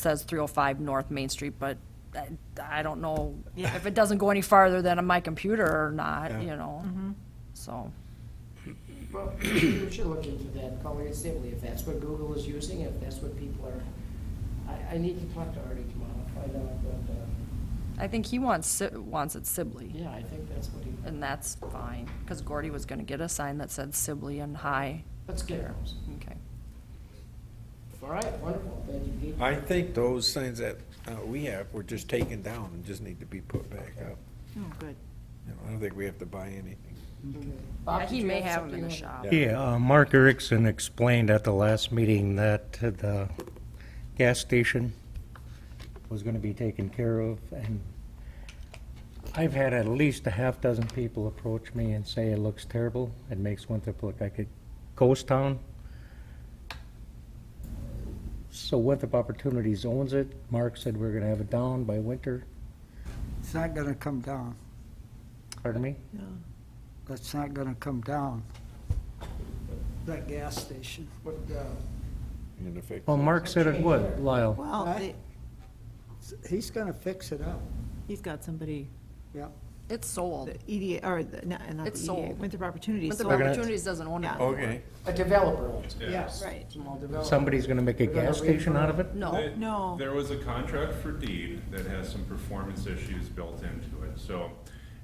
says 305 North Main Street, but I- I don't know if it doesn't go any farther than my computer or not, you know? Mm-hmm. So, Well, we should look into that, call it assembly, if that's what Google is using, if that's what people are, I, I need to talk to Artie tomorrow, find out, but, uh, I think he wants, Si- wants it Sibley, yeah, I think that's what he, and that's fine, because Gordy was gonna get a sign that said Sibley and High. let's get there. those. Okay. All right, wonderful, thank you, Pete. I think those signs that uh, we have were just taken down and just need to be put back up. Oh, good. You know, I don't think we have to buy anything. Bob, Yeah, did he you may have them something in the you shop. Yeah. Yeah, uh, Mark Erickson explained at the last meeting that the gas station was going to be taken care of, and I've had at least a half dozen people approach me and say it looks terrible, it makes Winthrop look like a ghost town. So Winthrop Opportunities owns it, Mark said we're going to have it down by winter, It's not gonna come down. pardon me? That's not gonna come down. That gas station. What, uh, And if it- Well, Mark said it would, Lyle. Well, Right. they- He's gonna fix it up. he's got somebody, Yeah. It's sold. the EDA, or, the- not not It's the EDA, sold. Winthrop Opportunities. But the sold it. Opportunities doesn't own it. Yeah. Okay, a developer owns it, Yeah. Right. small developer. Somebody's going to make a We're gonna gas station out of it? No, They- No. There was a contract for deed that has some performance issues built into it. So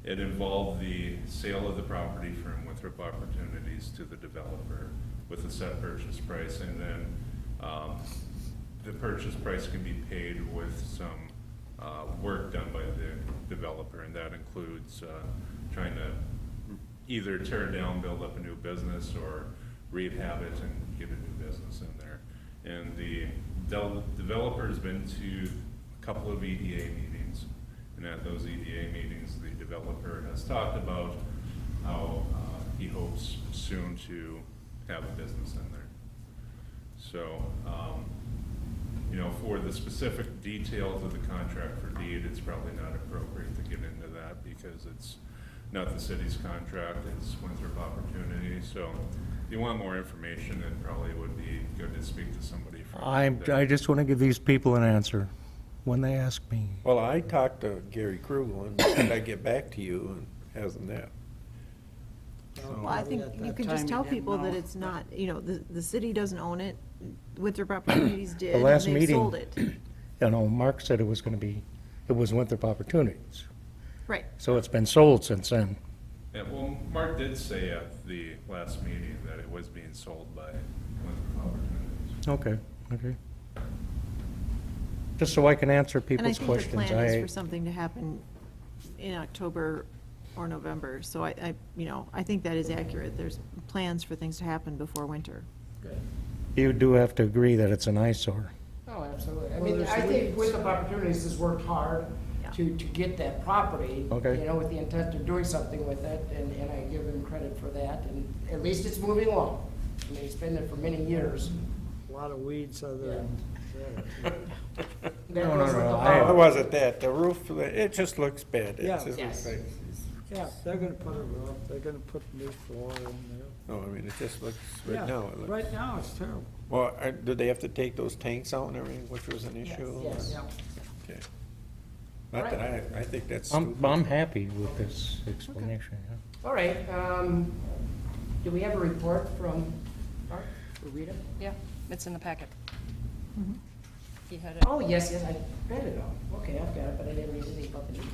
it involved the sale of the property from Winthrop Opportunities to the developer with a set purchase price. And then um, the purchase price can be paid with some uh, work done by the developer. And that includes uh, trying to either tear it down, build up a new business, or rehab it and get a new business in there. And the del- developer's been to a couple of EDA meetings. And at those EDA meetings, the developer has talked about how uh, he hopes soon to have a business in there. So, um, you know, for the specific details of the contract for deed, it's probably not appropriate to get into that because it's not the city's contract, it's Winthrop Opportunity. So if you want more information, it probably would be good to speak to somebody from. I, there. I just want to give these people an answer when they ask me. well, I talked to Gary Krugel and said I'd get back to you and hasn't that. Well, I think you can just tell people that it's not, you know, the, the city doesn't own it, Winthrop Opportunities did, and last they meeting- sold it. You know, Mark said it was going to be, it was Winthrop Opportunities. Right, So it's been sold since then. Yeah, well, Mark did say at the last meeting that it was being sold by Winthrop Opportunities. Okay, okay. Just so I can answer and I people's think the questions. plan is for something to happen in October or November, so I, I, you know, I think that is accurate, there's plans for things to happen before winter. Good. You do have to agree that it's an eyesore. Oh, absolutely. I mean, I think Winthrop Opportunities has worked hard Yeah. to, to get that property. Okay. You know, with the intent of doing something with it, and, and I give them credit for that, and at least it's moving along. I mean, it's been there for many years. A lot of weeds other than. That No, no, goes with no, the I- It bond. wasn't that, the roof, it just looks bad. It Yeah. just looks Yes. like- Yeah, they're gonna put a roof, they're gonna put new floor in No, I mean, it just looks, there. right now, it Yeah, looks- Right now, it's terrible. well, uh, did they have to take those tanks out and everything, which was an issue? Yes, yeah. Okay. Not that I, I think that's I'm, stupid. I'm happy with this explanation, yeah. All right, um, do we have a report from Art or Rita? yeah, it's in the packet. Mm-hmm. He had it. Oh, yes, yes, I read it all. Okay, I've got it, but I didn't read anything about the meeting.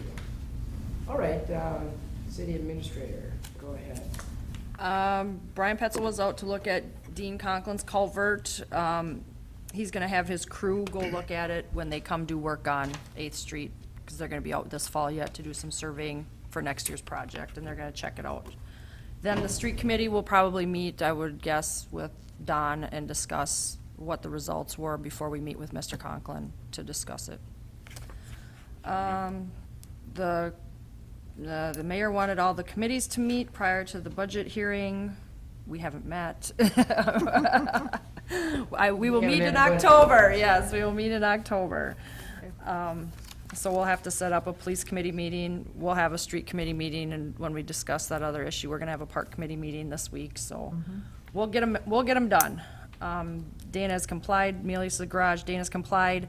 All right, um, city administrator, go ahead. Um, Brian Petzel was out to look at Dean Conklin's culvert. Um, he's gonna have his crew go look at it when they come do work on Eighth Street, because they're gonna be out this fall yet to do some surveying for next year's project, and they're gonna check it out. Then the street committee will probably meet, I would guess, with Don and discuss what the results were before we meet with Mr. Conklin to discuss it. Um, the, the the mayor wanted all the committees to meet prior to the budget hearing. We haven't met. I, we will We haven't meet in had a budget. October, yes, we will meet in October. Um, so we'll have to set up a police committee meeting, we'll have a street committee meeting, and when we discuss that other issue, we're gonna have a park committee meeting this week, so Mm-hmm. we'll get them, we'll get them done. Um, Dana's complied, Mealy's the garage, Dana's complied.